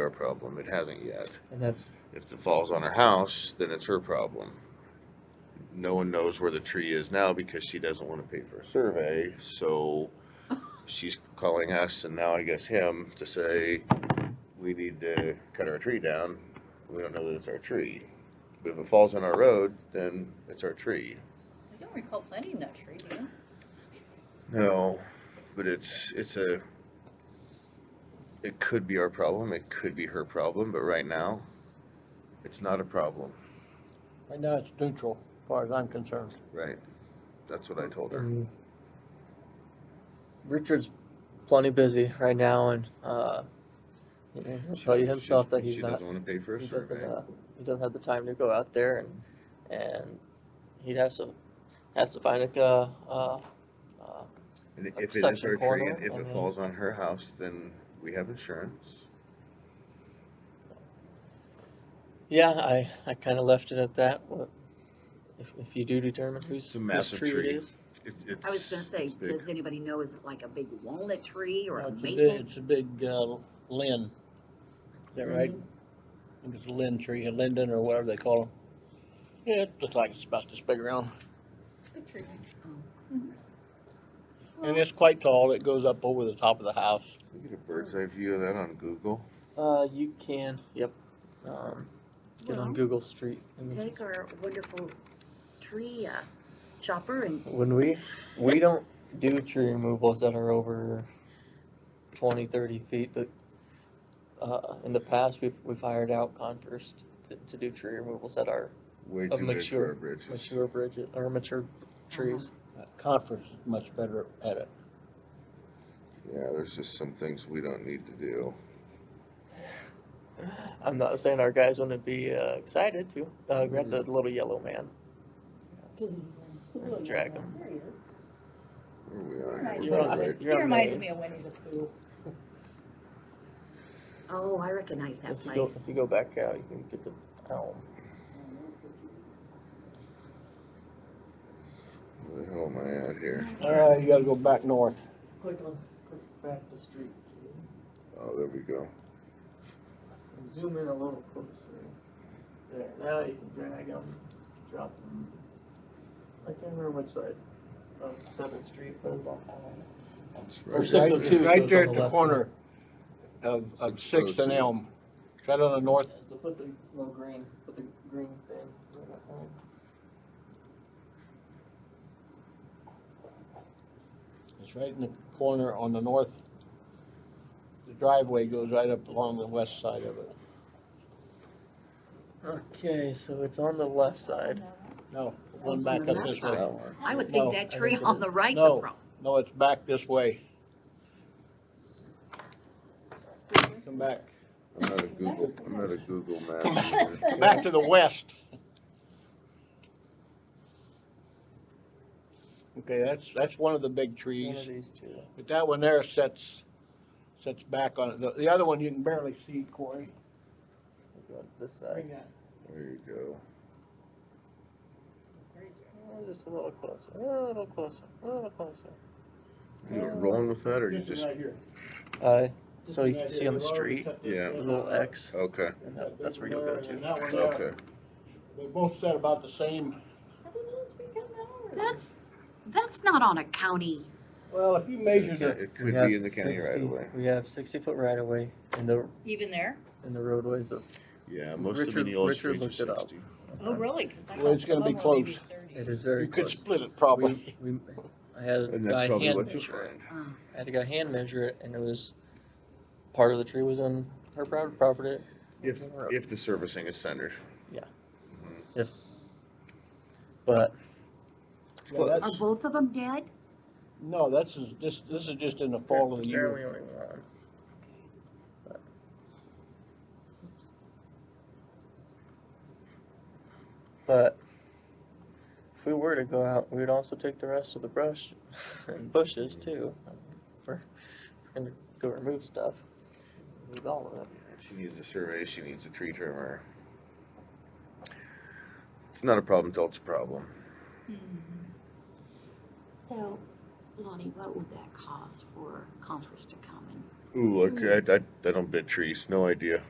our problem, it hasn't yet. And that's, If it falls on her house, then it's her problem. No one knows where the tree is now because she doesn't wanna pay for a survey, so she's calling us and now I guess him to say, we need to cut our tree down, we don't know that it's our tree. But if it falls on our road, then it's our tree. I don't recall planting that tree, do you? No, but it's, it's a, it could be our problem, it could be her problem, but right now, it's not a problem, Right now, it's neutral, as far as I'm concerned. right? That's what I told her. um, Richard's plenty busy right now and, uh, you know, he'll She tell you doesn't- she doesn't- himself that he's She not, doesn't wanna pay for a he doesn't, survey. uh, he doesn't have the time to go out there and, and he'd have to, has to find like a, uh, uh, And a if it is section our tree, and corridor, if I it mean- falls on her house, then we have insurance. yeah, I, I kinda left it at that, what, if, if you do determine whose, It's a whose massive tree it tree. is. It's, it's. I was gonna say, it's big. does anybody know, is it like a big walnut tree or a It's a big, maple? it's a big, uh, lin. Is that right? I Mm-hmm. think It's a lin tree, a linden or whatever they call them. Yeah, it looks like it's about this big around. Good tree. And it's quite tall. It goes up over the top of the house. We Get a bird's eye view of that on Google. Uh, you can, yep, um, get on Well, Google Street. and- Take our wonderful tree uh, chopper and When we, we don't do tree removals that are over 20, 30 feet, but, uh, in the past, we've, we've hired out Converse to, to do tree removals that are Way Of too big for mature- our bridges. mature bridges, or mature trees. Uh, Conference is much better at it. Yeah, there's just some things we don't need to do. I'm not saying our guys wouldn't be, uh, excited to, uh, grab the little yellow man, and drag him. Where we are, Right. we You're on- right. You're It reminds amazing. me of Winnie the Pooh. Oh, I recognize that If you go, place. if you go back out, you can get the um, elm. Where the hell am I at here? All right, you gotta go back north. Click on, click back the street, Oh, there we go. and zoom in a little closer. There, now you can drag them, drop them. I can't remember which side of Seventh Street, but it's on. It's Or right six oh there. two. Right there goes on the at the left corner of, of Six oh Sixth and two. Elm. It's Right on the north. So put the little green, put the green thing. right up there. It's right in the corner on the north. The driveway goes right up along the west side of it. Okay, so it's on the left side. No, one back up this way. That one. I would No, think I that tree think it on the is. right's No. a problem. No, it's back this way. Come back, I'm not a Google, I'm not a Google map. user. back to the west. Okay, that's, that's one of the big It's One of trees, these two. but that one there sets, sets back on it. The, the other one you can barely see, Corey. We'll go to This side. There you go. Oh, Just a little closer, a little closer, a little closer. You rolling with that or you just, Uh, so you can see on the street, yeah, a little X, okay, and that, that's where you'll go to. okay. They both set about the same. That's, that's not on a county. Well, if you So measure It the, it We could have be in the county 60 right away. We have sixty foot right of way in the, Even there? in the roadways of, Yeah, most of Richard- the old Richard streets are looked it up. 60. Oh, really? 'Cause I Well, it's thought gonna be some were maybe close. 30. it is you very could close. split it probably. We, we, I had a And guy that's probably hand what you'll measure it. find. I had to go hand measure it, and it was part of the tree was on her private property. If, if the servicing is centered. But It's Yeah, close. Are that's- both of them dead? No, that's, just- this, this is just in the fall of the year. Apparently only one. But if we were to go out, we would also take the rest of the brush and bushes too. We're, we're gonna go remove stuff. Remove all of it. She needs a survey, she needs a tree trimmer. It's not a problem till it's a problem. Mm-hmm. So, Lonnie, what would that cost for Conference to come and Ooh, look, I, I, I don't bid trees, no idea.